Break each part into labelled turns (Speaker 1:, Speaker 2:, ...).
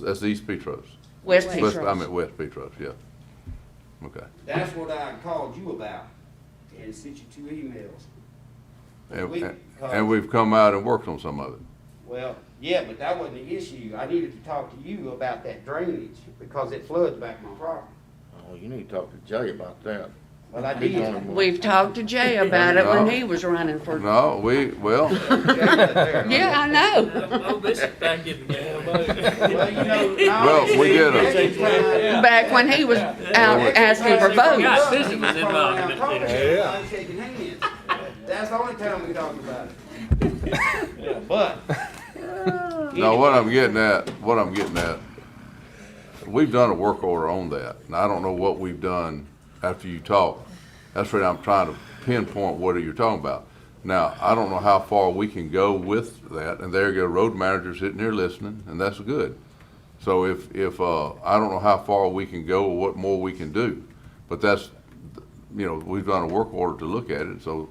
Speaker 1: That's East Petros.
Speaker 2: West
Speaker 1: West- I
Speaker 2: Petros.
Speaker 1: meant West Petros, yeah. Okay.
Speaker 3: That's what I called you about and sent you two emails.
Speaker 1: And,
Speaker 3: We-
Speaker 1: and- and we've come out and worked on some of it.
Speaker 3: Well, yeah, but that wasn't the issue. I needed to talk to you about that drainage because it floods back my property.
Speaker 4: Oh, you need to talk to Jay about that.
Speaker 3: Well, I
Speaker 4: He's on
Speaker 3: did.
Speaker 4: him.
Speaker 2: We've talked to Jay about it when he was running for,
Speaker 1: No, we, well,
Speaker 2: yeah, I know.
Speaker 5: Oh, this is back in the game.
Speaker 3: Well, you know, now-
Speaker 1: Well, we get it.
Speaker 3: Next time-
Speaker 2: Back when he was out
Speaker 1: Well,
Speaker 2: asking for votes.
Speaker 5: Yeah, this was in my argument there.
Speaker 3: Yeah. I'm shaking hands. That's the only time we talked about it. But.
Speaker 1: no, what I'm getting at, what I'm getting at, we've done a work order on that. And I don't know what we've done after you talk. That's what I'm trying to pinpoint what are you talking about. Now, I don't know how far we can go with that, and there you go, road manager sitting here listening, and that's good. So if, if, uh, I don't know how far we can go or what more we can do, but that's, you know, we've done a work order to look at it, so.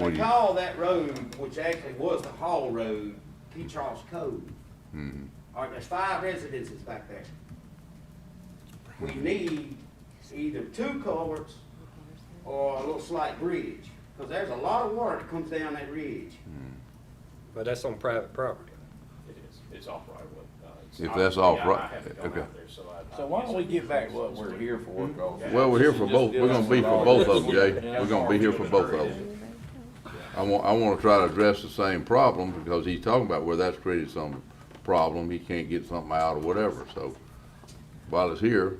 Speaker 1: what
Speaker 3: they
Speaker 1: do you-
Speaker 3: call that road, which actually was the Hall Road, P. Charles Cove.
Speaker 1: Mm-hmm.
Speaker 3: All right, there's five residences back there. We
Speaker 1: Mm-hmm.
Speaker 3: need either two culverts or a little slight bridge, because there's a lot of water that comes down that ridge.
Speaker 6: But that's on private property.
Speaker 7: It is, it's off right away. Uh, it's
Speaker 1: If
Speaker 7: not-
Speaker 1: that's off
Speaker 7: yeah, I
Speaker 1: Oh, right-
Speaker 7: haven't gone
Speaker 1: okay. Hmm?
Speaker 7: out there, So I- I
Speaker 8: So why don't we
Speaker 7: guess-
Speaker 8: get back what we're here for, Gulf?
Speaker 1: Well, we're here for both, we're gonna be for both of them, Jay, we're gonna be here for both of them. I want, I wanna try to address the same problem, because he's talking about where that's created some problem, he can't get something out or whatever, so. While it's here,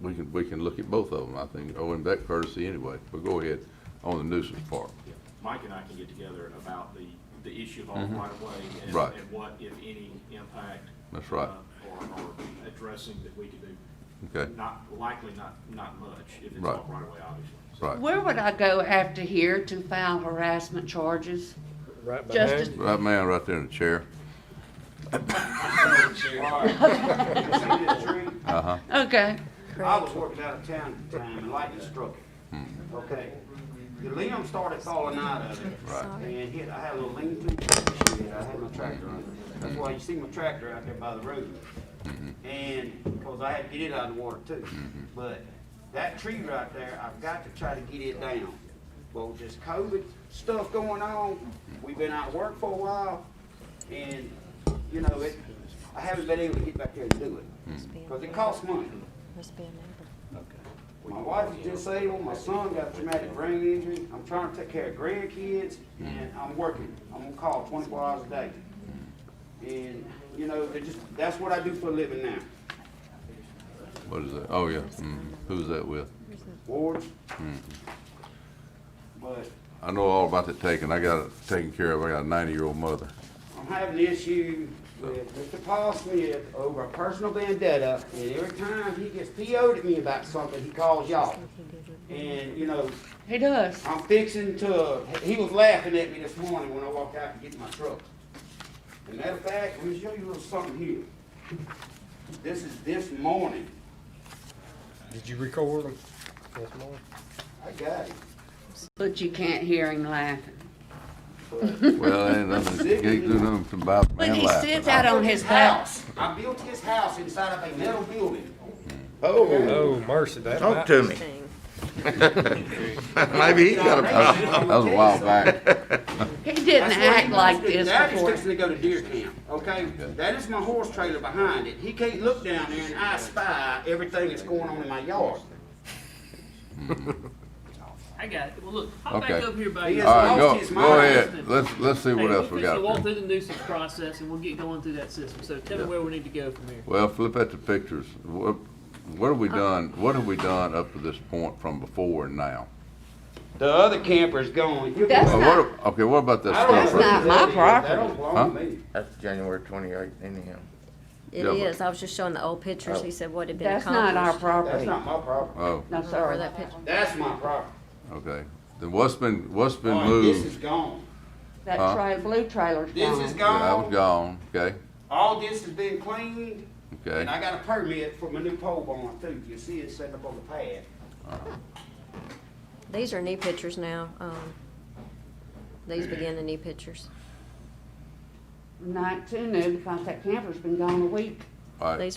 Speaker 1: we can, we can look at both of them, I think, oh, and that courtesy anyway, but go ahead, on the nuisance part.
Speaker 7: Yeah. Mike and I can get together about the, the issue of off right away and,
Speaker 1: Mm-hmm. Right.
Speaker 7: and what, if any, impact.
Speaker 1: That's right.
Speaker 7: uh, Or, or addressing that we can do.
Speaker 1: Okay.
Speaker 7: Not, likely not, not much if it's
Speaker 1: Right.
Speaker 7: off right away, obviously. So-
Speaker 1: Right,
Speaker 2: Where would I go after here to file harassment charges?
Speaker 6: Right
Speaker 2: Justin?
Speaker 6: behind,
Speaker 1: right man, right there in the chair,
Speaker 3: All right. See this tree?
Speaker 1: uh-huh,
Speaker 2: Okay,
Speaker 3: I was working out of town at the time, and lightning struck it. Okay. The limb started falling out of it.
Speaker 1: Right.
Speaker 3: And hit, I had a little lean to, I had my tractor on it. That's why you see my tractor out there by the road. And, because I had to get it out of the water too. But that tree right there, I've got to try to get it down. But with this COVID stuff going on, we've been out of work for a while, and, you know, it, I haven't been able to get back there and do it. Because it costs money.
Speaker 9: Must be a neighbor.
Speaker 3: My wife is disabled, my son got a traumatic brain injury, I'm trying to take care of grandkids, and I'm working, I'm on call twenty-four hours a day. And, you know, they just, that's what I do for a living now.
Speaker 1: what is that, oh, yeah, mhm. who's that with?
Speaker 3: Ward. But
Speaker 1: I know all about that taking, I got it taken care of, I got a ninety-year-old mother,
Speaker 3: I'm having an issue with Mr. Paul Smith over a personal vendetta, and every time he gets PO'd at me about something, he calls y'all. And, you know,
Speaker 2: he does.
Speaker 3: I'm fixing to, he was laughing at me this morning when I walked out to get my truck. As a matter of fact, let me show you a little something here. This is this morning.
Speaker 6: did you record them? That's mine.
Speaker 3: I got it.
Speaker 2: But you can't hear him laughing.
Speaker 3: But
Speaker 1: well, ain't nothing, can't do nothing about
Speaker 2: But
Speaker 1: man
Speaker 2: he
Speaker 1: laughing.
Speaker 2: sits out on his house.
Speaker 3: I built his house inside of a metal building.
Speaker 4: Oh,
Speaker 6: Oh, mercy, that
Speaker 4: talk
Speaker 6: might,
Speaker 4: to me. Maybe he got a
Speaker 1: That
Speaker 4: problem.
Speaker 1: was a while back.
Speaker 2: He didn't
Speaker 3: That's where he
Speaker 2: act like
Speaker 3: wants to-
Speaker 2: this
Speaker 3: That is
Speaker 2: before.
Speaker 3: fixing to go to deer camp, okay? That is my horse trailer behind it. He can't look down there and I spy everything that's going on in my yard.
Speaker 5: I got it. Well, look, I'm back
Speaker 1: Okay.
Speaker 5: up here by
Speaker 3: He
Speaker 5: you.
Speaker 3: is
Speaker 1: All right,
Speaker 3: lost
Speaker 1: go,
Speaker 3: his
Speaker 1: go
Speaker 3: mind.
Speaker 1: ahead. Let's, let's see
Speaker 5: Hey,
Speaker 1: what
Speaker 5: we'll
Speaker 1: else we
Speaker 5: fix it, Walk
Speaker 1: got.
Speaker 5: through the nuisance process and we'll get going through that system. So tell me where we need to go from here.
Speaker 1: Well, flip at the pictures. What, what have we
Speaker 2: Uh-huh.
Speaker 1: done, what have we done up to this point from before and now?
Speaker 3: The other camper's gone. You'll be-
Speaker 2: That's
Speaker 1: Uh,
Speaker 2: not-
Speaker 1: what- Okay, what about this
Speaker 3: I don't know
Speaker 2: That's
Speaker 3: who
Speaker 1: camper?
Speaker 2: not my
Speaker 3: that is. That
Speaker 2: property.
Speaker 3: don't belong
Speaker 1: Huh?
Speaker 3: to me.
Speaker 4: That's January twenty-eighth anyhow.
Speaker 9: It
Speaker 1: Yeah, but-
Speaker 9: is, I was just showing the old pictures, he said what had been
Speaker 2: That's not our
Speaker 9: accomplished.
Speaker 3: That's
Speaker 2: property.
Speaker 3: not my property.
Speaker 1: Oh,
Speaker 2: No,
Speaker 9: Or
Speaker 2: sorry.
Speaker 9: that picture,
Speaker 3: That's my property.
Speaker 1: okay. Then what's been, what's been
Speaker 3: All right, This is
Speaker 1: moved?
Speaker 3: gone.
Speaker 2: That
Speaker 1: Huh?
Speaker 2: tra- blue trailer's
Speaker 3: This is
Speaker 2: gone.
Speaker 1: Yeah, I was
Speaker 3: gone.
Speaker 1: gone, okay,
Speaker 3: All this has been cleaned, and I
Speaker 1: okay.
Speaker 3: got a permit for my new pole barn too. You see it set up on the pad.
Speaker 9: these are new pictures now, um, these begin the new pictures.
Speaker 2: Not too new because that camper's been gone a week.
Speaker 10: All right.
Speaker 1: These